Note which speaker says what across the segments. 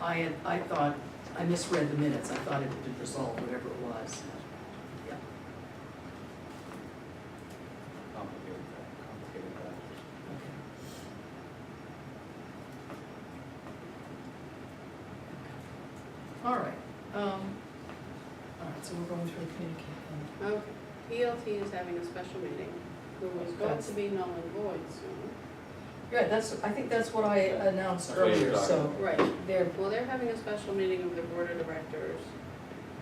Speaker 1: I had, I thought, I misread the minutes, I thought it had been resolved, whatever it was. Yeah.
Speaker 2: Complicated, fact- complicated factors.
Speaker 1: Okay. All right, um, all right, so we're going through the communication.
Speaker 3: Okay, PLT is having a special meeting, who was going to be null and void soon.
Speaker 1: Yeah, that's, I think that's what I announced
Speaker 2: That's what you're
Speaker 1: earlier, so
Speaker 2: talking
Speaker 3: Right.
Speaker 1: there,
Speaker 3: Well, they're having a special meeting of the board of directors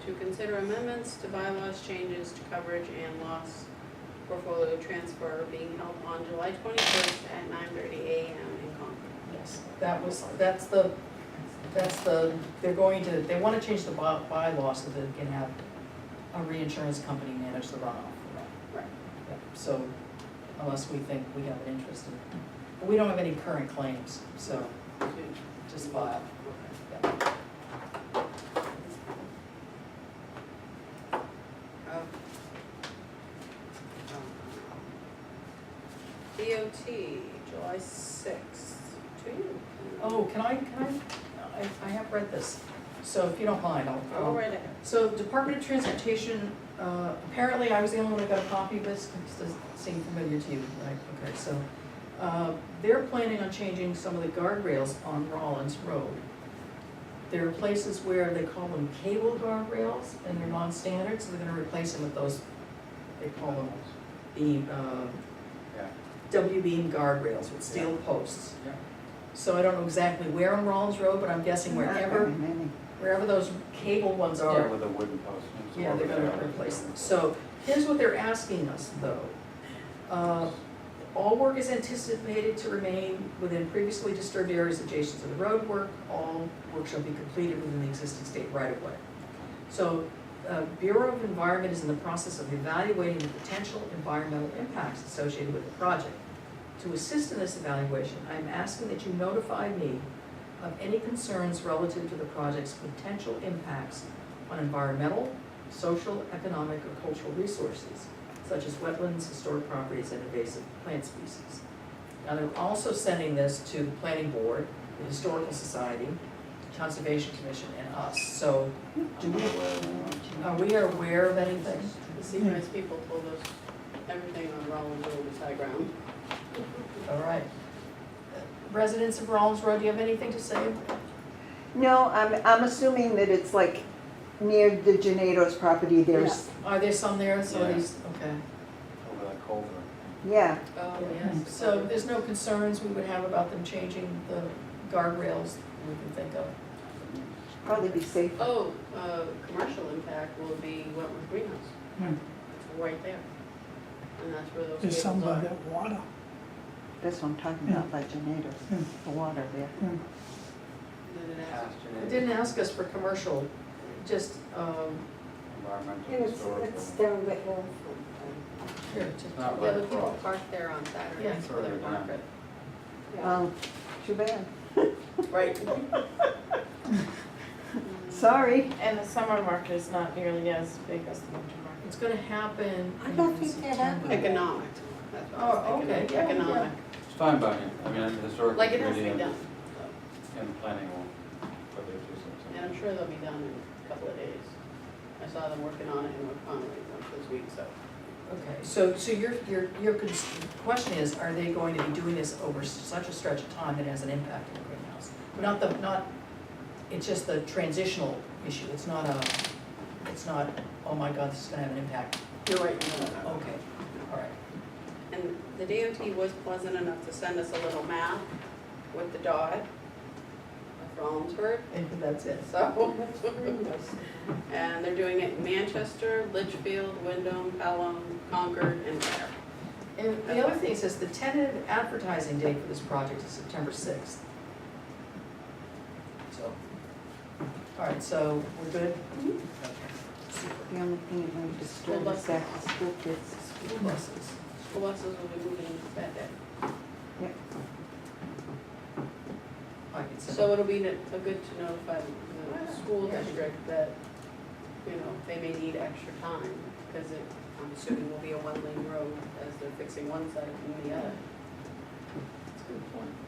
Speaker 3: to consider amendments to bylaws, changes to coverage and loss portfolio transfer being held on July twenty-first at nine thirty AM in Concord.
Speaker 1: yes, that was, that's the, that's the, they're going to, they want to change the by- bylaw so that they can have a reinsurance company manage the runoff.
Speaker 3: Right.
Speaker 1: Yeah, So unless we think we have an interest in, but we don't have any current claims, so just file.
Speaker 3: Oh. DOT, July sixth, to you.
Speaker 1: Oh, can I, can I, I, I have read this, so if you don't mind, I'll.
Speaker 3: Go right ahead.
Speaker 1: So Department of Transportation, uh, apparently I was the only one that got a copy of this, because this seemed familiar to you, right? Okay, so, uh, they're planning on changing some of the guardrails on Rollins Road. There are places where they call them cable guardrails, and they're non-standard, so they're gonna replace them with those, they call them beam, uh,
Speaker 2: Yeah,
Speaker 1: W-beam guardrails with steel posts.
Speaker 2: Yeah.
Speaker 1: So I don't know exactly where on Rollins Road, but I'm guessing wherever, wherever those cable ones are,
Speaker 2: yeah, with a wooden post. and so
Speaker 1: yeah, they're
Speaker 2: over
Speaker 1: gonna
Speaker 2: there.
Speaker 1: replace them. So here's what they're asking us, though. Uh, All work is anticipated to remain within previously disturbed areas adjacent to the road work. All work shall be completed within the existing state right-of-way. So uh, Bureau of Environment is in the process of evaluating the potential environmental impacts associated with the project. To assist in this evaluation, I am asking that you notify me of any concerns relative to the project's potential impacts on environmental, social, economic, or cultural resources, such as wetlands, historic properties, and invasive plant species. Now, they're also sending this to the planning board, the historical society, conservation commission, and us. So do we, are we aware of anything?
Speaker 3: The Seacrest people told us everything on Rollins Road was high ground.
Speaker 1: All right. Residents of Rollins Road, do you have anything to say?
Speaker 4: No, I'm, I'm assuming that it's like near the Gennado's property, there's,
Speaker 1: Are there some there? So
Speaker 2: Yeah.
Speaker 1: these, okay.
Speaker 2: Over that culvert.
Speaker 4: yeah,
Speaker 3: Oh,
Speaker 4: yes.
Speaker 1: So there's no concerns we would have about them changing the guardrails we can think of?
Speaker 4: probably be safe.
Speaker 3: Oh, uh, commercial impact will be Wentworth Greenhouse.
Speaker 5: Hmm.
Speaker 3: It's right there. And that's where those
Speaker 5: There's
Speaker 3: cables
Speaker 5: some by
Speaker 3: are.
Speaker 5: that water.
Speaker 4: That's what I'm talking about, by Gennado's,
Speaker 5: Yeah.
Speaker 4: the water there.
Speaker 3: And then it has-
Speaker 1: It
Speaker 2: Pasture,
Speaker 1: didn't ask us for commercial, just, um,
Speaker 2: environmental,
Speaker 6: And it's,
Speaker 2: historical.
Speaker 6: it's down the hill
Speaker 1: here, just,
Speaker 2: Not
Speaker 3: Yeah,
Speaker 2: right
Speaker 3: the people
Speaker 2: across.
Speaker 3: park there on
Speaker 1: Yeah.
Speaker 3: Saturdays for
Speaker 2: Further
Speaker 3: their Um,
Speaker 2: down.
Speaker 3: market.
Speaker 6: from,
Speaker 4: Oh, too bad.
Speaker 1: right,
Speaker 4: Sorry.
Speaker 7: And the summer market is not nearly as big as the winter market.
Speaker 1: it's gonna happen
Speaker 6: I don't
Speaker 1: in
Speaker 6: think they have
Speaker 1: September.
Speaker 3: Economic, that's what I
Speaker 1: Oh,
Speaker 3: was thinking,
Speaker 1: okay, yeah,
Speaker 3: economic.
Speaker 2: It's fine by me, I mean, the historical
Speaker 3: Like it has to
Speaker 2: committee
Speaker 3: be
Speaker 2: and,
Speaker 3: done,
Speaker 2: and planning will, put their two cents
Speaker 3: and I'm sure they'll be done in a couple of days. I saw them working on it in Oak Pond like, this week, so.
Speaker 1: Okay, so, so your, your, your con- question is, are they going to be doing this over such a stretch of time that it has an impact on the greenhouse? Not the, not, it's just the transitional issue, it's not a, it's not, oh my god, this is gonna have an impact,
Speaker 3: You're right, you know that.
Speaker 1: okay, all right.
Speaker 3: And the DOT was pleasant enough to send us a little map with the dot for Almsford,
Speaker 1: And that's it.
Speaker 3: so. And they're doing it in Manchester, Litchfield, Wyndham, Pelham, Concord, and Ware.
Speaker 1: And the other thing says the tentative advertising date for this project is September sixth. So, all right, so we're good?
Speaker 4: The only thing that might disturb is that the school kids.
Speaker 1: School buses.
Speaker 3: School buses will be moving that day.
Speaker 1: I can send-
Speaker 3: So it'll be n- a good to notify the school district that, you know, they may need extra time, because it, I'm assuming will be a one-lane road as they're fixing one side and the other.
Speaker 1: That's a good point.